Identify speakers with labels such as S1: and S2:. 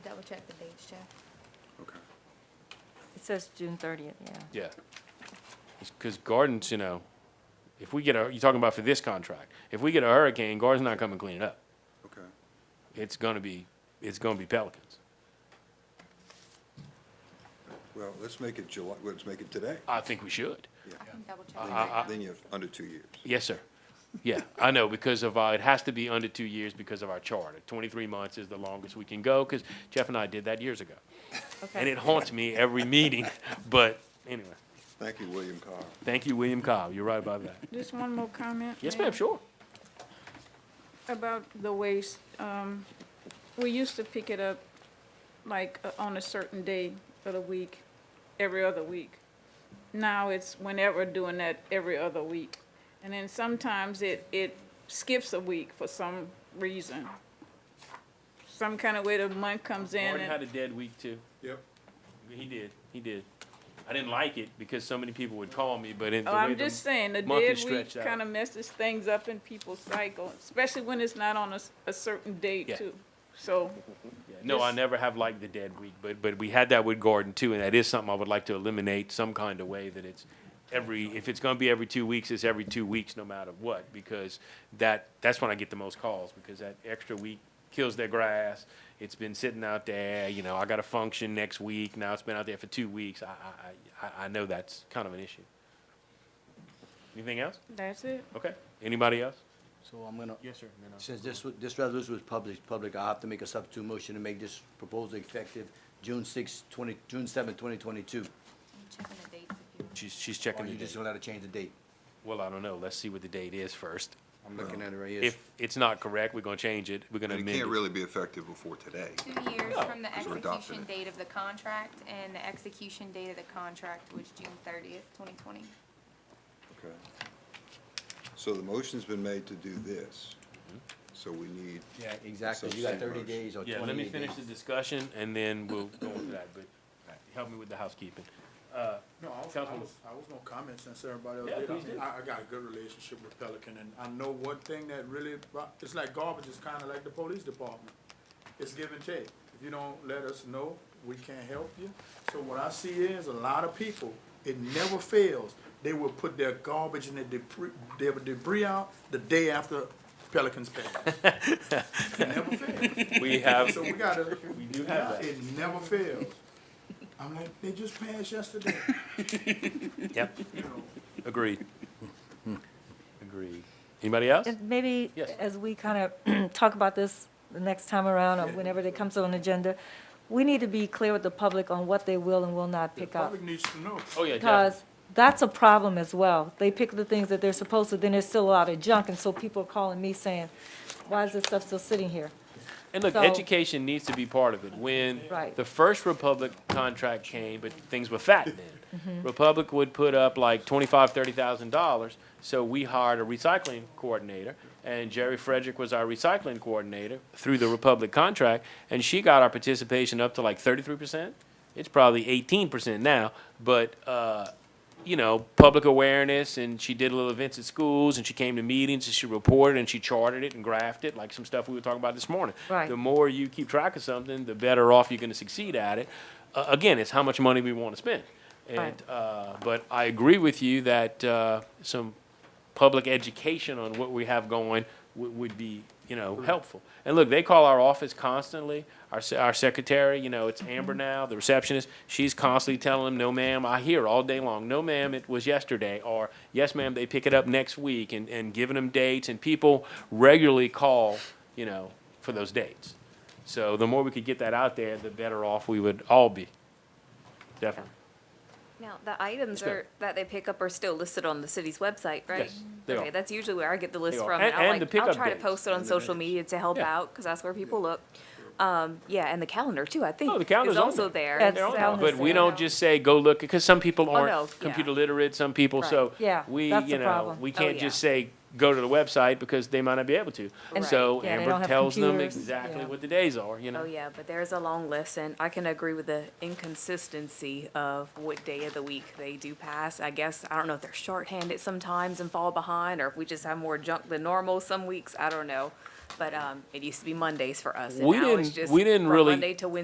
S1: check the dates, Jeff.
S2: Okay.
S3: It says June thirtieth, yeah.
S4: Yeah. Because Gardens, you know, if we get a, you're talking about for this contract, if we get a hurricane, Gardens not coming to clean it up.
S2: Okay.
S4: It's gonna be, it's gonna be Pelicans.
S2: Well, let's make it July, let's make it today.
S4: I think we should.
S2: Yeah. Uh-huh.
S1: Double check.
S4: Uh,
S2: Then
S1: the
S2: you-
S1: dates.
S2: Then you're under two years.
S4: Yes, sir. Yeah, I know, because of, uh, it has to be under two years because of our charter. Twenty-three months is the longest we can go, because Jeff and I did that years ago. And
S3: Okay.
S4: it haunts me every meeting, but anyway,
S2: Thank you, William Carr.
S4: thank you, William Cobb, you're right about that.
S5: Just one more comment.
S4: Yes, ma'am, sure.
S5: About the waste, um, we used to pick it up like uh, on a certain day of the week, every other week. Now it's whenever doing that every other week. And then sometimes it, it skips a week for some reason. Some kind of way the month comes in
S4: Gordon had
S5: and,
S4: a dead week, too.
S2: Yep.
S4: He did, he did. I didn't like it because so many people would call me, but in the
S5: oh,
S4: way
S5: I'm
S4: the-
S5: just saying, the
S4: month is
S5: dead week
S4: stretched out.
S5: kind of messes things up in people's cycle, especially when it's not on a, s- a certain
S4: Yeah.
S5: date too. So
S4: Yeah, No, I
S5: just-
S4: never have liked the dead week, but, but we had that with Gordon, too, and that is something I would like to eliminate some kind of way that it's every, if it's gonna be every two weeks, it's every two weeks, no matter what, because that, that's when I get the most calls, because that extra week kills their grass. It's been sitting out there, you know, I got a function next week, now it's been out there for two weeks. I, I, I, I know that's kind of an issue. Anything else?
S5: that's it.
S4: Okay. Anybody else?
S6: So I'm gonna,
S4: Yes, sir. No, no.
S6: since this, wa- this resolution was published public, I'll have to make a substitute motion to make this proposal effective June sixth, twenty, June seventh, twenty twenty-two.
S1: Checking the dates if you.
S4: She's, she's
S6: Or
S4: checking the
S6: you just
S4: date.
S6: gonna have to change the date?
S4: Well, I don't know. Let's see what the date is first.
S6: I'm looking at it right here.
S4: If it's not correct, we're gonna change it. We're gonna
S2: And it
S4: amend
S2: can't
S4: it.
S2: really be effective before today.
S1: Two years
S4: No,
S1: from the
S2: because we're adopting
S1: execution
S2: it.
S1: date of the contract, and the execution date of the contract was June thirtieth, twenty twenty.
S2: Okay. So the motion's been made to do this.
S4: Mm-hmm.
S2: So we need,
S6: Yeah, exactly, you got thirty days or twenty-eight days.
S4: Yeah, let me finish the discussion and then we'll go into that, but help me with the housekeeping. Uh,
S7: No, I was, I
S4: Councilwoman.
S7: was, I was gonna comment since everybody else
S4: Yeah,
S7: did. I
S4: please
S7: mean,
S4: do.
S7: I, I got a good relationship with Pelican, and I know one thing that really, bo- it's like garbage, it's kinda like the police department. It's give and take. If you don't let us know, we can't help you. So what I see is a lot of people, it never fails, they will put their garbage and their debris, their debris out the day after Pelicans pass. It never fails.
S4: We have,
S7: So we gotta,
S4: We do have that.
S7: it never fails. I'm like, they just passed yesterday,
S4: yep,
S7: you know?
S4: agreed. Agreed. Anybody else?
S3: And maybe
S4: Yes.
S3: as we kind of talk about this the next time around or whenever it comes on the agenda, we need to be clear with the public on what they will and will not pick up.
S7: Public needs to know.
S4: Oh, yeah, definitely.
S3: Because that's a problem as well. They pick the things that they're supposed to, then there's still a lot of junk, and so people are calling me saying, why is this stuff still sitting here?
S4: And look,
S3: So-
S4: education needs to be part of it. When
S3: Right.
S4: the first Republic contract came, but things were fat
S3: Mm-hmm.
S4: then. Republic would put up like twenty-five, thirty thousand dollars, so we hired a recycling coordinator, and Jerry Frederick was our recycling coordinator through the Republic contract, and she got our participation up to like thirty-three percent. It's probably eighteen percent now, but, uh, you know, public awareness, and she did little events at schools, and she came to meetings, and she reported, and she charted it and graphed it, like some stuff we were talking about this morning.
S3: Right.
S4: The more you keep track of something, the better off you're gonna succeed at it. Uh, again, it's how much money we wanna spend. And,
S3: Right.
S4: uh, but I agree with you that, uh, some public education on what we have going would, would be, you know, helpful. And look, they call our office constantly, our, se- our secretary, you know, it's Amber now, the receptionist, she's constantly telling them, no ma'am, I hear all day long, no ma'am, it was yesterday, or yes ma'am, they pick it up next week, and, and giving them dates, and people regularly call, you know, for those dates. So the more we could get that out there, the better off we would all be, definitely.
S8: Now, the items
S4: Yes, ma'am.
S8: are, that they pick up are still listed on the city's website, right?
S4: Yes, they
S8: Okay,
S4: are.
S8: that's usually where I get the list
S4: They are.
S8: from.
S4: And-
S8: I'll
S4: and
S8: like-
S4: the pickup
S8: I'll try to
S4: dates.
S8: post it on social media to help
S4: Yeah.
S8: out, because that's where people look. Um, yeah, and the calendar too, I think.
S4: Oh, the calendar's
S8: Is
S4: on
S8: also there. Oh,
S3: That's
S4: They're on
S3: Sound
S4: it. But
S3: is
S4: we
S3: there.
S4: don't just say, go look, because some people
S8: no,
S4: aren't
S8: yeah.
S4: computer literate, some people,
S8: Right.
S4: so.
S3: Yeah,
S4: we,
S3: that's
S4: you
S3: the
S4: know,
S3: problem.
S4: We
S8: Oh,
S4: can't just
S8: yeah.
S4: say, go to the website, because they might not be able to.
S8: And-
S4: So
S3: Yeah, they don't
S4: Amber
S3: have
S4: tells them
S3: computers,
S4: exactly
S3: yeah.
S4: what the days are, you
S8: Oh,
S4: know?
S8: yeah, but there's a long list, and I can agree with the inconsistency of what day of the week they do pass. I guess, I don't know if they're shorthanded sometimes and fall behind, or if we just have more junk than normal some weeks, I don't know. But, um, it used to be Mondays for us, and
S4: We
S8: now it's
S4: didn't-
S8: just
S4: we didn't
S8: from
S4: really-
S8: Monday to Wednesday